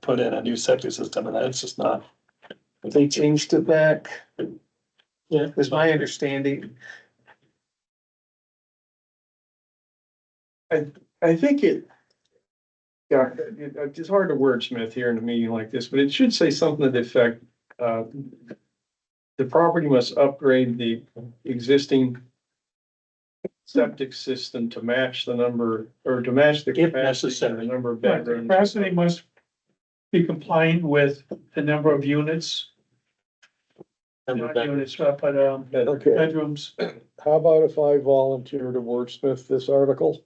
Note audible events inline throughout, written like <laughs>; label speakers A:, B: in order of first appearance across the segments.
A: put in a new septic system and that's just not.
B: They changed it back,
A: Yeah.
B: is my understanding.
C: I think it. Yeah, it, it- it's hard to wordsmith here in a meeting like this, but it should say something to the effect, uh. The property must upgrade the existing. Septic system to match the number, or to match the.
A: If
C: capacity,
A: necessary.
C: the Number of
D: Right, the
C: bedrooms.
D: capacity must be compliant with the number of units,
A: Remember
D: not
A: that.
D: units, uh, but, um,
C: Bedroom.
E: Okay,
D: bedrooms.
E: how about if I volunteer to wordsmith this article?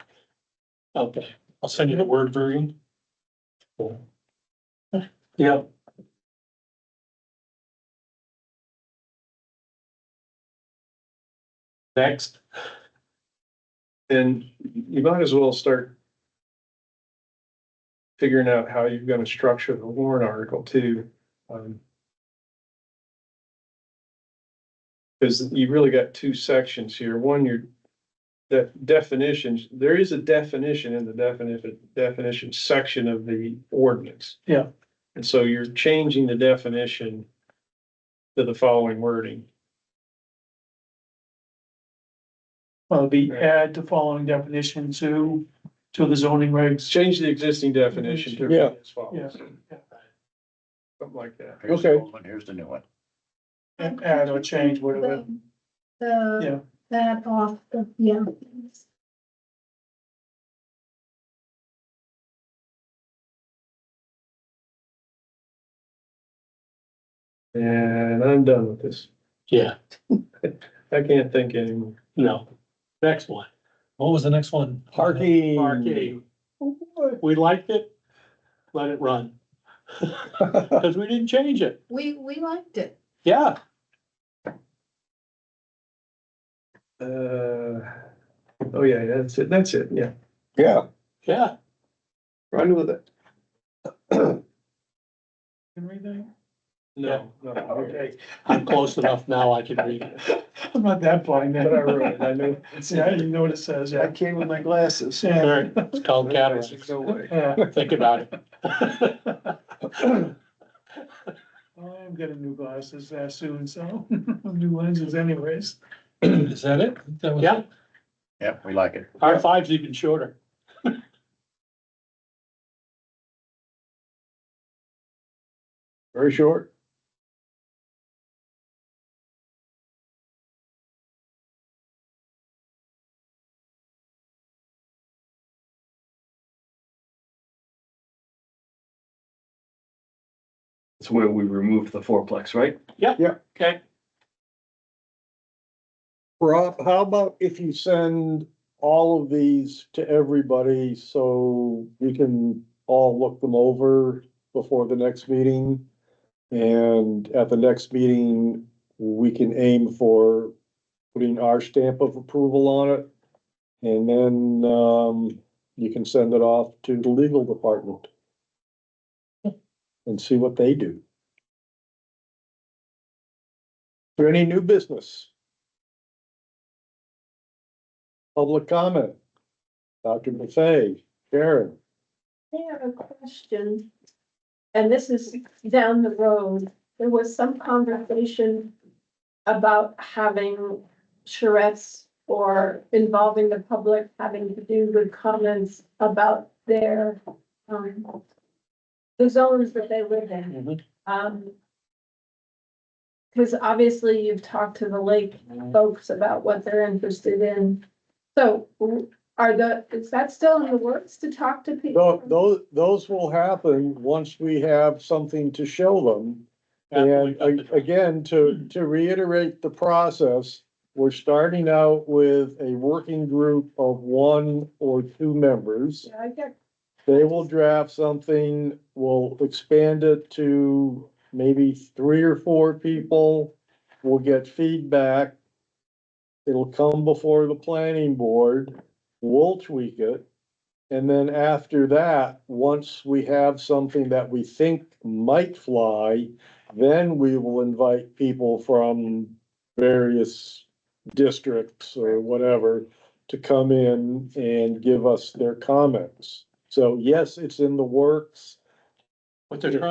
A: Okay, I'll send you the word version. Yeah.
C: Next. Then you might as well start. Figuring out how you're gonna structure the warrant article too. um, Cause you really got two sections here. One, your de- definitions, there is a definition in the definition, definition section of the ordinance.
D: Yeah.
C: And so you're changing the definition to the following wording.
D: Well, be add the following definition to, to the zoning regs.
C: Change the existing definition to.
E: Yeah.
C: as follows.
D: Yeah.
C: Something like that.
F: Here's the
E: Okay.
F: old one, here's the new one.
D: Add or change, whatever. Yeah.
G: The, that off, the yeah.
C: And I'm done with this.
A: Yeah,
C: I can't think anymore.
A: no. Next one.
H: What was the next one?
E: Parking.
A: Parking.
C: Oh,
A: We liked it. Let it run. <laughs> Cause we didn't change it.
G: We, we liked it.
A: Yeah,
C: Uh, oh yeah, that's it, that's it, yeah.
E: Yeah,
A: yeah.
C: Run with it.
D: Can read that?
C: No, no, okay,
D: Okay,
A: I'm close enough now. I can read it.
D: I'm not that blind
C: but I
D: then. <laughs>
C: wrote it, I know.
D: See, I didn't know what it says,
B: I
D: yeah.
B: came with my glasses.
A: All
D: Yeah,
A: right, it's called cataracts.
C: There's no way.
D: yeah.
A: Think about it.
D: I'm getting new glasses uh, soon, so, <laughs> new lenses anyways.
H: <laughs> Is that it? That was-
A: Yeah,
F: Yep, we like it.
A: R five's even shorter.
E: very short.
I: That's where we removed the fourplex, right?
A: Okay.
E: Rob, how about if you send all of these to everybody so we can all look them over before the next meeting? And at the next meeting, we can aim for putting our stamp of approval on it. And then, um, you can send it off to the legal department. And see what they do. For any new business? Public comment. Dr. Buffet, Karen,
G: I have a question, and this is down the road. There was some conversation about having charrettes or involving the public having to do with comments about their, um, the zones that they live in.
A: Mhm.
G: Um, because obviously you've talked to the lake folks about what they're interested in. So are the, is that still in the works to talk to people?
E: Tho- those, those will happen once we have something to show them. And a- again, to, to reiterate the process, we're starting out with a working group of one or two members.
G: Yeah, I get,
E: They will draft something, we'll expand it to maybe three or four people. We'll get feedback. It'll come before the planning board, we'll tweak it. And then after that, once we have something that we think might fly, then we will invite people from various districts or whatever to come in and give us their comments. So yes, it's in the works.
A: What they're trying